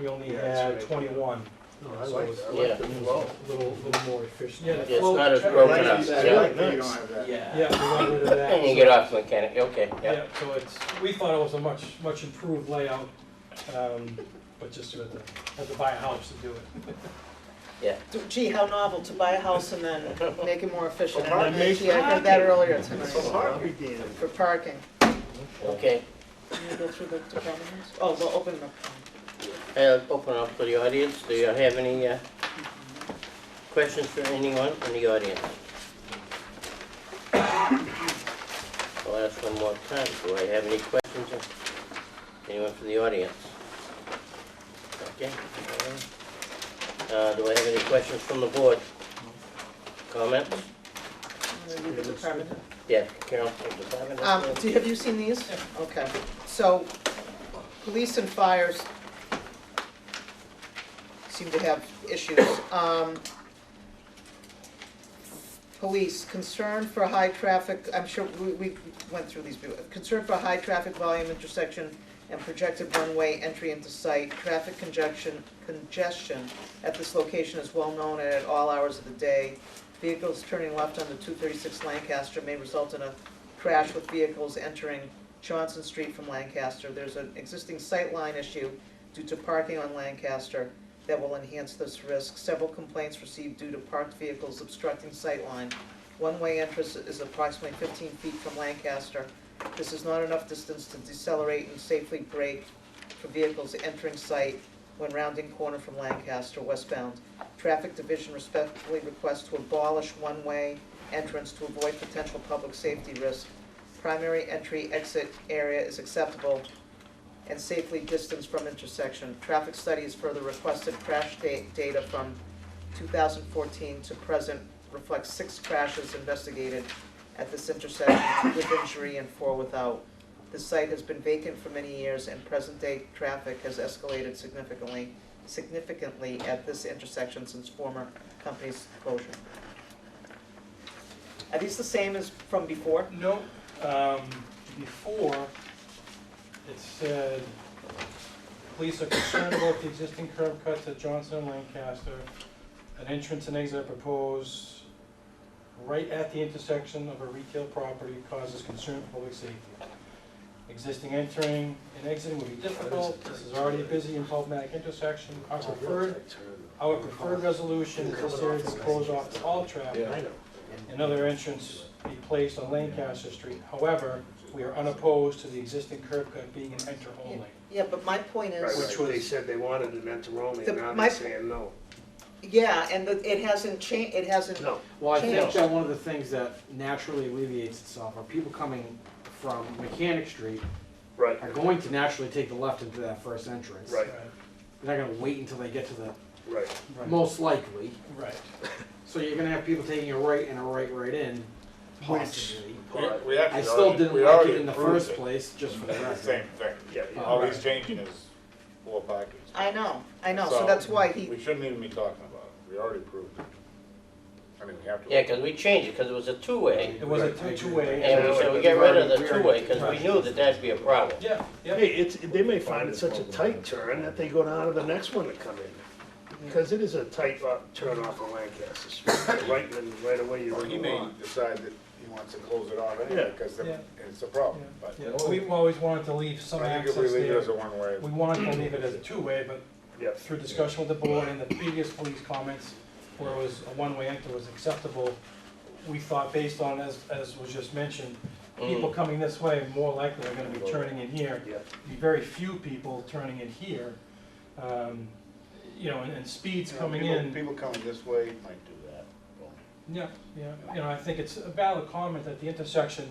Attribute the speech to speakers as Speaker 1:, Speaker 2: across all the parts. Speaker 1: we only
Speaker 2: Yeah,
Speaker 1: had
Speaker 2: it's really-
Speaker 1: twenty-one,
Speaker 2: No, I like, I
Speaker 3: Yeah.
Speaker 2: like the flow.
Speaker 1: a little, little more efficient.
Speaker 4: Yeah, the
Speaker 3: Yeah, it's
Speaker 4: flow
Speaker 3: not as
Speaker 4: check-
Speaker 2: I
Speaker 3: broken
Speaker 2: like
Speaker 3: up,
Speaker 2: that- I
Speaker 3: yeah.
Speaker 2: like that you don't have that.
Speaker 4: Yeah,
Speaker 1: Yeah, we got rid of that.
Speaker 3: And you get off mechanic, okay, yeah.
Speaker 1: Yeah, so it's, we thought it was a much, much improved layout, um, but just you had to, had to buy a house to do it.
Speaker 5: Gee, how novel to buy a house and then make it more efficient.
Speaker 2: Well,
Speaker 5: And
Speaker 2: parking.
Speaker 5: Gee, I heard that earlier
Speaker 2: So
Speaker 5: tonight,
Speaker 2: hard we did.
Speaker 5: for parking.
Speaker 3: Okay,
Speaker 5: Can you go through the departments? Oh, we'll open them up.
Speaker 3: I'll open up to the audience. Do you have any uh, questions for anyone in the audience? I'll ask one more time. Do I have any questions? Anyone from the audience? Okay. Uh, Do I have any questions from the board? Comments?
Speaker 5: Maybe the department.
Speaker 3: Yeah, Carol, the department
Speaker 5: Um,
Speaker 3: head.
Speaker 5: do, have you seen these? Okay, so, police and fires seem to have issues. Um, police, concern for high traffic, I'm sure, we, we went through these, before. concern for high traffic volume intersection and projected one-way entry into site, traffic congestion, congestion at this location is well known and at all hours of the day. Vehicles turning left onto two thirty-six Lancaster may result in a crash with vehicles entering Johnson Street from Lancaster. There's an existing sightline issue due to parking on Lancaster that will enhance this risk. Several complaints received due to parked vehicles obstructing sightline. One-way entrance is approximately fifteen feet from Lancaster. This is not enough distance to decelerate and safely brake for vehicles entering site when rounding corner from Lancaster westbound. Traffic Division respectfully requests to abolish one-way entrance to avoid potential public safety risk. Primary entry exit area is acceptable and safely distanced from intersection. Traffic study is further requested crash da- data from two thousand fourteen to present reflects six crashes investigated at this intersection, two with injury and four without. The site has been vacant for many years and present day traffic has escalated significantly, significantly at this intersection since former company's closure. Are these the same as from before?
Speaker 1: No, um, before, it said, police are concerned about the existing curb cuts at Johnson and Lancaster. An entrance and exit are proposed right at the intersection of a retail property causes concern for public safety. Existing entering and exiting would be difficult, this is already a busy and problematic intersection, our preferred Our preferred resolution is there to close off to all traffic. Another entrance be placed on Lancaster Street. However, we are unopposed to the existing curb cut being an enter only.
Speaker 5: Yeah, but my point
Speaker 2: Right,
Speaker 5: is,
Speaker 1: Which
Speaker 2: right. They
Speaker 1: was-
Speaker 2: said they wanted an Enteroni,
Speaker 5: The-
Speaker 2: and now
Speaker 5: my-
Speaker 2: they're saying no.
Speaker 5: yeah, and the- it hasn't changed, it hasn't
Speaker 2: No.
Speaker 6: Well, I think
Speaker 5: Change.
Speaker 6: that one of the things that naturally alleviates itself are people coming from Mechanic Street
Speaker 2: Right,
Speaker 6: are going to naturally take the left into that first entrance.
Speaker 2: Right.
Speaker 6: They're not gonna wait until they get to the,
Speaker 2: right.
Speaker 1: Right,
Speaker 6: most likely.
Speaker 1: right.
Speaker 6: So you're gonna have people taking a right and a right right in,
Speaker 2: Which-
Speaker 6: possibly.
Speaker 7: We actually
Speaker 6: I still
Speaker 7: already-
Speaker 6: didn't
Speaker 7: we
Speaker 6: like
Speaker 7: already
Speaker 6: it in the
Speaker 7: approved
Speaker 6: first
Speaker 7: it.
Speaker 6: place, just for the
Speaker 7: It's the
Speaker 6: record.
Speaker 7: Same thing.
Speaker 2: Yeah, yeah.
Speaker 7: All he's changing is four parking. spaces.
Speaker 5: I know, I know, so that's why he,
Speaker 7: We shouldn't even be talking about it. We already approved it. I mean, we have to.
Speaker 3: Yeah, because we changed it, because it was a two-way.
Speaker 1: It was a
Speaker 6: Right, I agree.
Speaker 1: two-way.
Speaker 3: And we said we get rid of the two-way, because we knew that that'd be a problem.
Speaker 1: Yeah, yeah.
Speaker 2: Hey, it's, they may find it such a tight turn that they go down to the next one to come in. Because it is a tight uh, turn off of Lancaster Street, right, and right away you're
Speaker 7: Or
Speaker 2: in
Speaker 7: he
Speaker 2: the
Speaker 7: may
Speaker 2: lawn.
Speaker 7: decide that he wants to close it off
Speaker 2: Yeah.
Speaker 7: anyway, because
Speaker 1: Yeah.
Speaker 7: it's a problem, but.
Speaker 1: Yeah, We always wanted to leave some
Speaker 7: I think
Speaker 1: access
Speaker 7: if we leave it as a
Speaker 1: there.
Speaker 7: one-way,
Speaker 1: We wanted to leave it as a two-way, but
Speaker 2: Yeah.
Speaker 1: through discussion with the board and the previous police comments, where it was a one-way enter was acceptable, we thought based on, as, as was just mentioned,
Speaker 3: Mm-hmm. Oh.
Speaker 1: people coming this way more likely are gonna be turning in here.
Speaker 2: Yeah.
Speaker 1: Be very few people turning in here, um, you know, and, and speeds
Speaker 7: you know,
Speaker 1: coming
Speaker 7: people-
Speaker 1: in.
Speaker 7: People coming this way might do that.
Speaker 1: Yeah, yeah, you know, I think it's a valid comment at the intersection,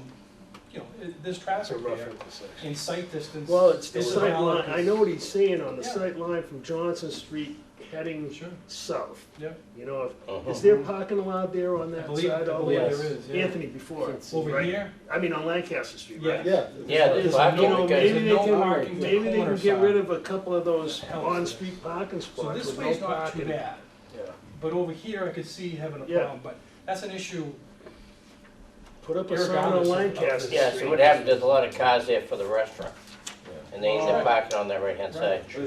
Speaker 1: you know, i- there's
Speaker 2: That's a
Speaker 1: traffic
Speaker 2: rough
Speaker 1: there,
Speaker 2: intersection.
Speaker 1: in sight distance.
Speaker 2: Well, it's the
Speaker 1: It's a
Speaker 2: sight
Speaker 1: valid
Speaker 2: line, I know what he's saying on the
Speaker 1: Yeah.
Speaker 2: sight line from Johnson Street heading
Speaker 1: Sure,
Speaker 2: south.
Speaker 1: yeah,
Speaker 2: You know, if-
Speaker 3: Uh-huh.
Speaker 2: is there parking allowed there on
Speaker 1: I
Speaker 2: that
Speaker 1: believe, I
Speaker 2: side? all the
Speaker 1: believe
Speaker 2: way?
Speaker 3: Yes.
Speaker 1: there is, yeah.
Speaker 2: Anthony, before, it's
Speaker 1: Over
Speaker 2: right?
Speaker 1: here,
Speaker 2: I mean, on Lancaster Street,
Speaker 1: yeah.
Speaker 2: right?
Speaker 3: Yeah, the
Speaker 1: There's
Speaker 3: parking,
Speaker 1: no-
Speaker 3: because,
Speaker 1: There's
Speaker 2: Maybe they
Speaker 1: no
Speaker 2: can-
Speaker 1: parking to the
Speaker 2: Maybe they
Speaker 1: corner
Speaker 2: can get rid
Speaker 1: side.
Speaker 2: of a couple of those
Speaker 1: Hell, yeah.
Speaker 2: on-street parking
Speaker 1: So
Speaker 2: spots
Speaker 1: this
Speaker 2: with
Speaker 1: way's
Speaker 2: no
Speaker 1: not too
Speaker 2: parking.
Speaker 1: bad,
Speaker 2: Yeah.
Speaker 1: but over here I could see having a
Speaker 2: Yeah.
Speaker 1: problem, but that's an issue,
Speaker 2: Put up a sign on
Speaker 1: Irregardless of-
Speaker 2: Lancaster Street.
Speaker 3: yeah, so what happens, there's a lot of cars there for the restaurant. And they end up
Speaker 1: Alright.
Speaker 3: parking on that right-hand side.